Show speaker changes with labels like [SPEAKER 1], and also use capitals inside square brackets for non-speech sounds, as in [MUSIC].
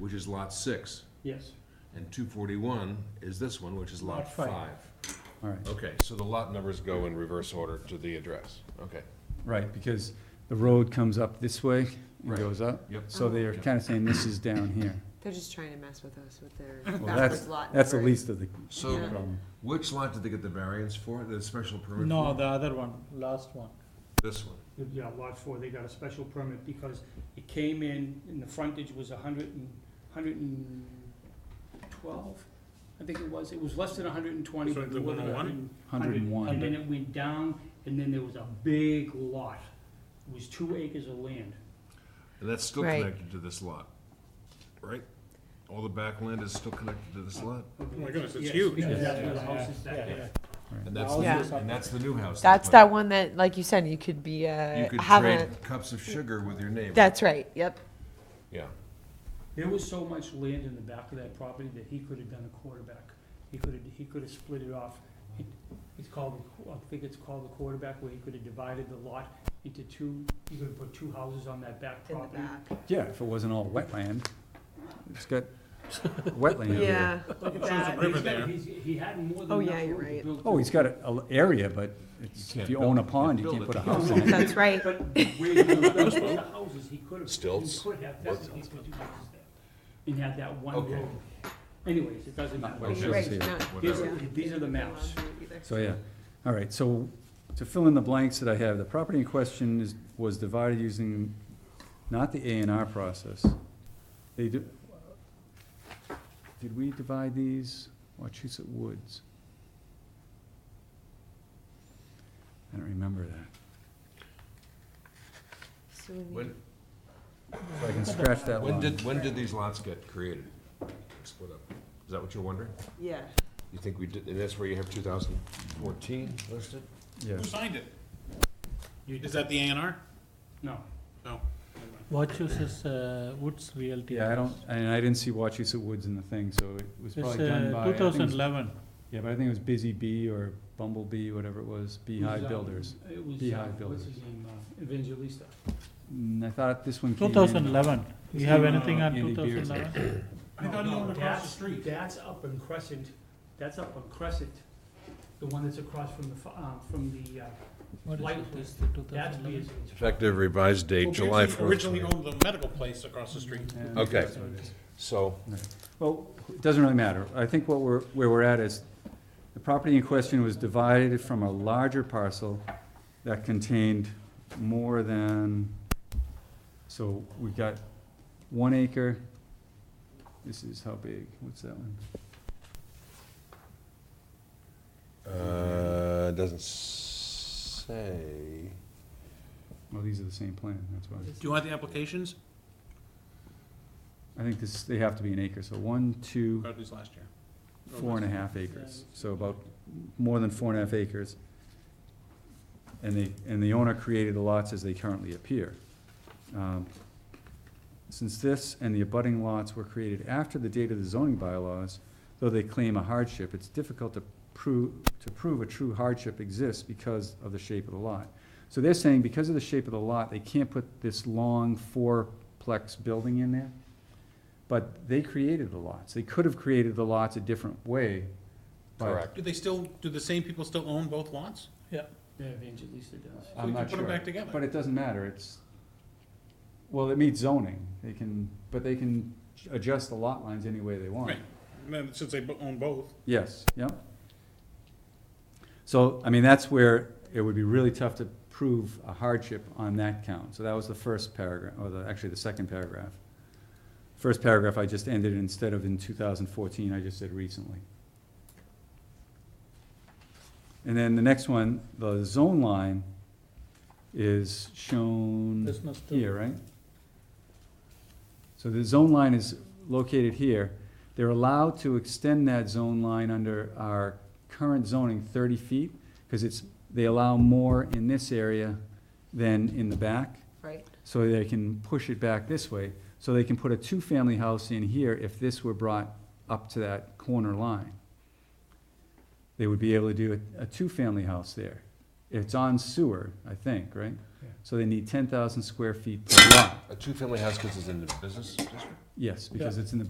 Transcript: [SPEAKER 1] which is lot six,
[SPEAKER 2] Yes.
[SPEAKER 1] and two forty-one is this one, which is lot
[SPEAKER 2] Lot five.
[SPEAKER 1] five.
[SPEAKER 3] All right,
[SPEAKER 1] Okay, so the lot numbers go in reverse order to the address, okay.
[SPEAKER 3] right, because the road comes up this way and
[SPEAKER 1] Right.
[SPEAKER 3] goes up.
[SPEAKER 1] Yep.
[SPEAKER 3] So they're kind of saying this is down here.
[SPEAKER 4] They're just trying to mess with us with their
[SPEAKER 3] [LAUGHS] Well,
[SPEAKER 4] backwards
[SPEAKER 3] that's,
[SPEAKER 4] lot.
[SPEAKER 3] that's the
[SPEAKER 4] numbering.
[SPEAKER 3] least of the
[SPEAKER 1] So
[SPEAKER 4] Yeah.
[SPEAKER 3] problem.
[SPEAKER 1] which lot did they get the variance for, the special permit?
[SPEAKER 2] No,
[SPEAKER 1] for?
[SPEAKER 2] the other one, last one.
[SPEAKER 1] This one,
[SPEAKER 2] Yeah, lot four, they got a special permit because it came in, and the frontage was a hundred and, hundred and twelve, I think it was, it was less than a hundred and twenty,
[SPEAKER 5] So
[SPEAKER 2] but
[SPEAKER 5] the
[SPEAKER 2] more than a
[SPEAKER 5] 101?
[SPEAKER 2] hundred. and-
[SPEAKER 3] 101.
[SPEAKER 2] And then it went down, and then there was a big lot, it was two acres of land.
[SPEAKER 1] and that's still
[SPEAKER 4] Right.
[SPEAKER 1] connected to this lot, right? All the back land is still connected to this lot?
[SPEAKER 2] Oh
[SPEAKER 5] my goodness, it's huge.
[SPEAKER 2] Because
[SPEAKER 5] Yeah.
[SPEAKER 2] that's where the house is back
[SPEAKER 5] Yeah.
[SPEAKER 2] there.
[SPEAKER 1] And that's,
[SPEAKER 2] Yeah.
[SPEAKER 1] the- and that's the new house.
[SPEAKER 4] That's
[SPEAKER 1] they put.
[SPEAKER 4] that one that, like you said, you could be,
[SPEAKER 1] You
[SPEAKER 4] uh,
[SPEAKER 1] could
[SPEAKER 4] have a,
[SPEAKER 1] trade cups of sugar with your neighbor.
[SPEAKER 4] that's right, yep.
[SPEAKER 1] Yeah.
[SPEAKER 2] There was so much land in the back of that property that he could have done a quarterback. He could have, he could have split it off. It- It's called, I think it's called the quarterback, where he could have divided the lot into two, he could have put two houses on that back property.
[SPEAKER 3] Yeah, if it wasn't all wetland. It's got wetland here.
[SPEAKER 2] Look at
[SPEAKER 5] There's a
[SPEAKER 2] that.
[SPEAKER 5] river
[SPEAKER 2] He's got-
[SPEAKER 5] there.
[SPEAKER 2] he's- He had more than
[SPEAKER 4] Oh,
[SPEAKER 2] enough
[SPEAKER 4] yeah, you're
[SPEAKER 2] room to
[SPEAKER 4] right.
[SPEAKER 2] build
[SPEAKER 3] Oh,
[SPEAKER 2] two.
[SPEAKER 3] he's got an area, but it's,
[SPEAKER 1] can't
[SPEAKER 3] if you
[SPEAKER 1] build-
[SPEAKER 3] own a
[SPEAKER 1] you
[SPEAKER 3] pond, you
[SPEAKER 1] build
[SPEAKER 3] can't
[SPEAKER 1] it.
[SPEAKER 3] put a house in it.
[SPEAKER 4] That's right.
[SPEAKER 2] But where he could have built
[SPEAKER 4] [LAUGHS]
[SPEAKER 2] the houses, he could have, he
[SPEAKER 1] Stilts.
[SPEAKER 2] could have, definitely put two houses there. And had that one
[SPEAKER 1] Okay.
[SPEAKER 2] road. Anyways, it doesn't
[SPEAKER 3] Not
[SPEAKER 2] matter.
[SPEAKER 3] much.
[SPEAKER 4] Right,
[SPEAKER 3] here.
[SPEAKER 4] no,
[SPEAKER 2] These
[SPEAKER 1] Whatever.
[SPEAKER 2] are, these are the maps.
[SPEAKER 3] So, yeah, all right, so to fill in the blanks that I have, the property in question is, was divided using not the A and R process. They do, did we divide these, Wachusett Woods? I don't remember that,
[SPEAKER 4] So we need-
[SPEAKER 1] When,
[SPEAKER 3] so I can scratch that
[SPEAKER 1] when
[SPEAKER 3] line.
[SPEAKER 1] did, when did these lots get created? Split up? Is that what you're wondering?
[SPEAKER 4] Yeah,
[SPEAKER 1] You think we did, and that's where you have two thousand fourteen listed?
[SPEAKER 3] Yeah,
[SPEAKER 5] Who signed it? Is that the A and R?
[SPEAKER 2] No.
[SPEAKER 5] No.
[SPEAKER 6] Wachusett's uh, Woods Realty.
[SPEAKER 3] yeah, I don't, and I didn't see Wachusett Woods in the thing, so it
[SPEAKER 6] It's
[SPEAKER 3] was
[SPEAKER 6] uh,
[SPEAKER 3] probably done by, I
[SPEAKER 6] two
[SPEAKER 3] think it was-
[SPEAKER 6] thousand eleven.
[SPEAKER 3] yeah, but I think it was Busy Bee or Bumblebee, whatever it was,
[SPEAKER 2] It was,
[SPEAKER 3] Beehive
[SPEAKER 2] uh,
[SPEAKER 3] Builders.
[SPEAKER 2] It was, uh,
[SPEAKER 3] Beehive
[SPEAKER 2] what's
[SPEAKER 3] Builders.
[SPEAKER 2] his name, uh, Evangelista.
[SPEAKER 3] Mm, I thought this one came
[SPEAKER 6] Two
[SPEAKER 3] in-
[SPEAKER 6] thousand eleven.
[SPEAKER 2] Is
[SPEAKER 6] You have
[SPEAKER 2] he,
[SPEAKER 6] anything
[SPEAKER 2] uh,
[SPEAKER 6] on
[SPEAKER 3] Andy
[SPEAKER 6] two
[SPEAKER 3] Beard?
[SPEAKER 6] thousand eleven?
[SPEAKER 5] I thought he
[SPEAKER 2] No, no,
[SPEAKER 5] owned across the
[SPEAKER 2] that's-
[SPEAKER 5] street.
[SPEAKER 2] That's up in Crescent, that's up on Crescent, the one that's across from the, fi- uh, from the, uh, Lighthouse. that's Beers.
[SPEAKER 1] Effective revised date, July fourth.
[SPEAKER 5] Originally owned the medical place across the street.
[SPEAKER 3] Yeah,
[SPEAKER 1] Okay.
[SPEAKER 3] that's what it is.
[SPEAKER 1] So,
[SPEAKER 3] Well, it doesn't really matter. I think what we're, where we're at is, the property in question was divided from a larger parcel that contained more than, so we've got one acre. This is how big, what's that one?
[SPEAKER 1] uh, it doesn't say.
[SPEAKER 3] Well, these are the same plan, that's why.
[SPEAKER 5] Do you want the applications?
[SPEAKER 3] I think this, they have to be an acre, so one, two,
[SPEAKER 5] Got these last year.
[SPEAKER 3] four and a half acres, so about more than four and a half acres. And the, and the owner created the lots as they currently appear. Um, Since this and the abutting lots were created after the date of the zoning bylaws, though they claim a hardship, it's difficult to prove, to prove a true hardship exists because of the shape of the lot. So they're saying because of the shape of the lot, they can't put this long fourplex building in there. But they created the lots. They could have created the lots a different way. but-
[SPEAKER 1] Correct.
[SPEAKER 5] Do they still, do the same people still own both lots?
[SPEAKER 2] Yeah, Evangelista does.
[SPEAKER 5] So
[SPEAKER 3] I'm
[SPEAKER 5] you can
[SPEAKER 3] not
[SPEAKER 5] Put
[SPEAKER 3] sure.
[SPEAKER 5] them back together.
[SPEAKER 3] But it doesn't matter, it's, well, it meets zoning, they can, but they can adjust the lot lines any way they want.
[SPEAKER 5] Right. And then, since they bo- own both,
[SPEAKER 3] Yes, yep. So, I mean, that's where it would be really tough to prove a hardship on that count. So that was the first paragraph, or the, actually the second paragraph. First paragraph, I just ended, instead of in two thousand fourteen, I just said recently. And then the next one, the zone line is shown
[SPEAKER 6] This must do.
[SPEAKER 3] here, right? So the zone line is located here. They're allowed to extend that zone line under our current zoning thirty feet, because it's, they allow more in this area than in the back,
[SPEAKER 4] right.
[SPEAKER 3] so they can push it back this way. So they can put a two-family house in here if this were brought up to that corner line. They would be able to do a, a two-family house there. It's on sewer, I think, right?
[SPEAKER 2] Yeah.
[SPEAKER 3] So they need ten thousand square feet per lot,
[SPEAKER 1] A two-family house because it's in the business district?
[SPEAKER 3] yes, because it's in the,